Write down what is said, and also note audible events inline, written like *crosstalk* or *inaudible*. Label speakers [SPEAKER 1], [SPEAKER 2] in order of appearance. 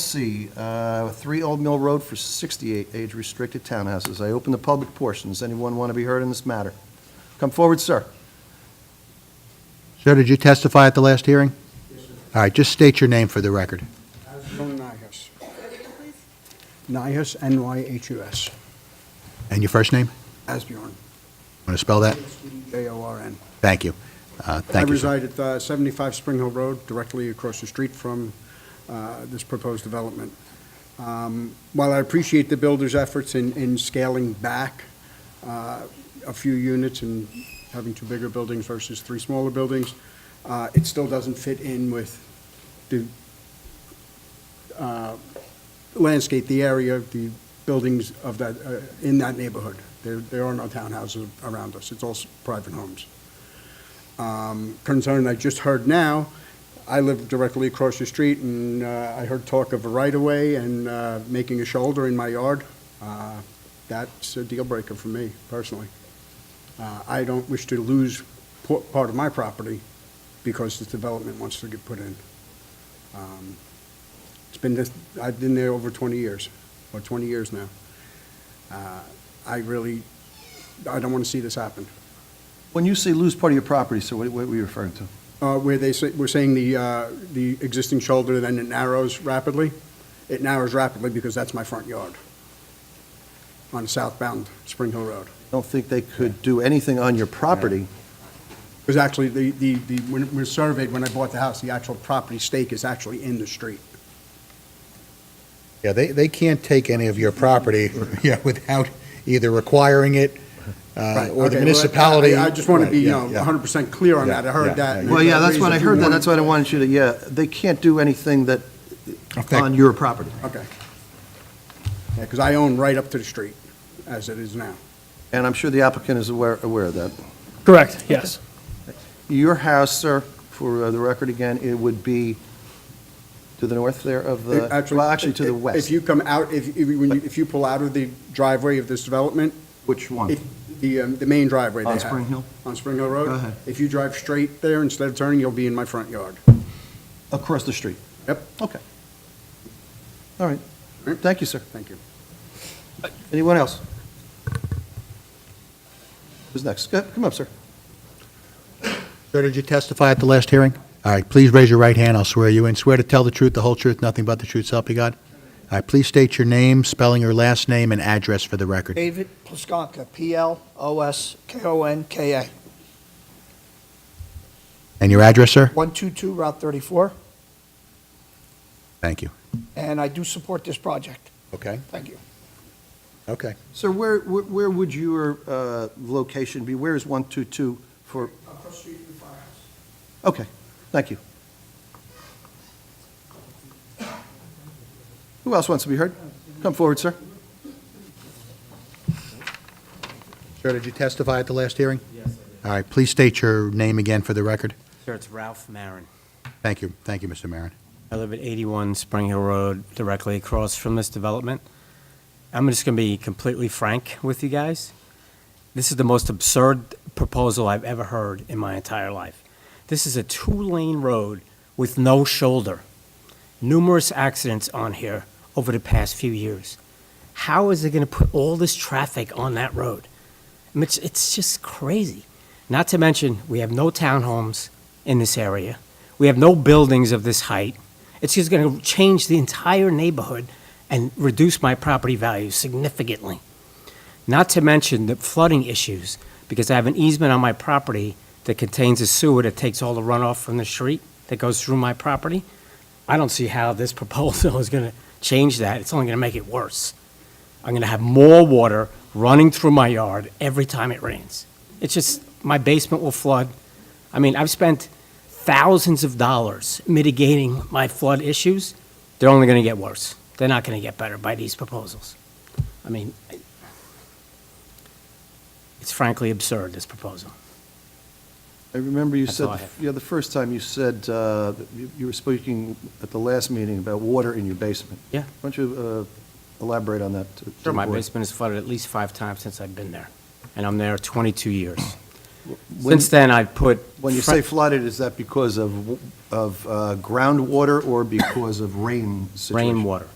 [SPEAKER 1] C, uh, 3 Old Mill Road for 68 age-restricted townhouses. I open the public portion. Does anyone want to be heard in this matter? Come forward, sir.
[SPEAKER 2] Sir, did you testify at the last hearing? Yes, sir. All right, just state your name for the record.
[SPEAKER 3] From Nyhus. Nyhus, N-Y-H-U-S,
[SPEAKER 2] And your first name?
[SPEAKER 3] Asbjorn,
[SPEAKER 2] Want to spell that?
[SPEAKER 3] J-O-R-N.
[SPEAKER 2] Thank you. Uh, Thank you,
[SPEAKER 3] I
[SPEAKER 2] sir.
[SPEAKER 3] reside at uh, 75 Spring Hill Road, directly across the street from uh, this proposed development. Um, While I appreciate the builder's efforts in, in scaling back uh, a few units and having two bigger buildings versus three smaller buildings, uh, it still doesn't fit in with the uh, landscape, the area, the buildings of that, uh, in that neighborhood. There, there are no townhouses around us, it's all s- private homes um, concern I just heard now, I live directly across the street, and uh, I heard talk of a right-of-way and uh, making a shoulder in my yard. Uh, That's a deal breaker for me personally. Uh, I don't wish to lose po- part of my property because this development wants to get put in. Um, It's been, this- I've been there over 20 years, or 20 years now. Uh, I really, I don't want to see this happen.
[SPEAKER 1] When you say lose part of your property, sir, what what were you referring to?
[SPEAKER 3] Uh, Where they say, we're saying the, uh, the existing shoulder, then it narrows rapidly. It narrows rapidly because that's my front yard on southbound Spring Hill Road.
[SPEAKER 1] I don't think they could do anything on your property.
[SPEAKER 3] Because actually, the, the, the when it was surveyed, when I bought the house, the actual property stake is actually in the street.
[SPEAKER 2] Yeah, they, they can't take any of your property, *laughs* yeah, without either requiring it, uh,
[SPEAKER 3] Right,
[SPEAKER 2] or the
[SPEAKER 3] okay, well,
[SPEAKER 2] municipality.
[SPEAKER 3] I I just want to
[SPEAKER 2] Right,
[SPEAKER 3] be, you
[SPEAKER 2] yeah,
[SPEAKER 3] know,
[SPEAKER 2] yeah.
[SPEAKER 3] 100% clear on
[SPEAKER 2] Yeah,
[SPEAKER 3] that. I
[SPEAKER 2] yeah,
[SPEAKER 3] heard that.
[SPEAKER 2] yeah.
[SPEAKER 1] Well, yeah, that's what I heard, that.
[SPEAKER 3] Reason-
[SPEAKER 1] that's what I wanted you to, yeah, they can't do anything that,
[SPEAKER 2] Affect-
[SPEAKER 1] on your property.
[SPEAKER 3] Okay. Yeah, because I own right up to the street, as it is now.
[SPEAKER 1] And I'm sure the applicant is aware, aware of that.
[SPEAKER 4] Correct, yes.
[SPEAKER 1] Your house, sir, for uh, the record again, it would be to the north there of the,
[SPEAKER 3] It actually-
[SPEAKER 1] well, actually to the
[SPEAKER 3] if-
[SPEAKER 1] west.
[SPEAKER 3] If you come out, if, if you, when you- if you pull out of the driveway of this development,
[SPEAKER 1] Which one?
[SPEAKER 3] it- the, um, the main driveway they
[SPEAKER 1] On
[SPEAKER 3] have.
[SPEAKER 1] Spring Hill?
[SPEAKER 3] On Spring Hill Road.
[SPEAKER 1] Go ahead.
[SPEAKER 3] If you drive straight there instead of turning, you'll be in my front yard.
[SPEAKER 1] Across the street.
[SPEAKER 3] Yep,
[SPEAKER 1] Okay. All right.
[SPEAKER 3] Right.
[SPEAKER 1] Thank you, sir.
[SPEAKER 3] thank you.
[SPEAKER 1] Anyone else? Who's next? Go- Come up, sir.
[SPEAKER 2] Sir, did you testify at the last hearing? All right, please raise your right hand, I'll swear you in. Swear to tell the truth, the whole truth, nothing but the truth, so help you God? All right, please state your name, spelling your last name and address for the record.
[SPEAKER 5] David Ploskonka, P-L-O-S-K-O-N-K-A,
[SPEAKER 2] And your address, sir?
[SPEAKER 5] 122 Route 34,
[SPEAKER 2] Thank you.
[SPEAKER 5] and I do support this project.
[SPEAKER 2] Okay,
[SPEAKER 5] Thank you.
[SPEAKER 2] okay.
[SPEAKER 1] Sir, where, where where would your uh, location be? Where is 122 for,
[SPEAKER 5] Across the street from the firehouse.
[SPEAKER 1] okay, thank you. Who else wants to be heard? Come forward, sir.
[SPEAKER 2] Sir, did you testify at the last hearing? Yes, I did. All right, please state your name again for the record.
[SPEAKER 6] Sure, it's Ralph Marin.
[SPEAKER 2] Thank you, thank you, Mr. Maron.
[SPEAKER 6] I live at 81 Spring Hill Road, directly across from this development. I'm just going to be completely frank with you guys. This is the most absurd proposal I've ever heard in my entire life. This is a two-lane road with no shoulder. Numerous accidents on here over the past few years. How is it going to put all this traffic on that road? I mean, It's, it's just crazy. Not to mention, we have no townhomes in this area. We have no buildings of this height. It's just going to change the entire neighborhood and reduce my property value significantly. Not to mention the flooding issues, because I have an easement on my property that contains a sewer that takes all the runoff from the street that goes through my property. I don't see how this *laughs* proposal is going to change that. It's only going to make it worse. I'm going to have more water running through my yard every time it rains. It's just, my basement will flood. I mean, I've spent thousands of dollars mitigating my flood issues. They're only going to get worse. They're not going to get better by these proposals. I mean, I- it's frankly absurd, this proposal.
[SPEAKER 1] I remember you
[SPEAKER 6] That's
[SPEAKER 1] said,
[SPEAKER 6] all I have.
[SPEAKER 1] yeah, the first time you said, uh, that you you were speaking at the last meeting about water in your basement.
[SPEAKER 6] Yeah.
[SPEAKER 1] Why don't you uh, elaborate on that? to- to the
[SPEAKER 6] My
[SPEAKER 1] board?
[SPEAKER 6] basement has flooded at least five times since I've been there, and I'm there 22 years.
[SPEAKER 1] When-
[SPEAKER 6] Since then, I've put.
[SPEAKER 1] When you
[SPEAKER 6] fr-
[SPEAKER 1] say flooded, is that because of, w- of uh, groundwater or because of rain situation?
[SPEAKER 6] Rainwater.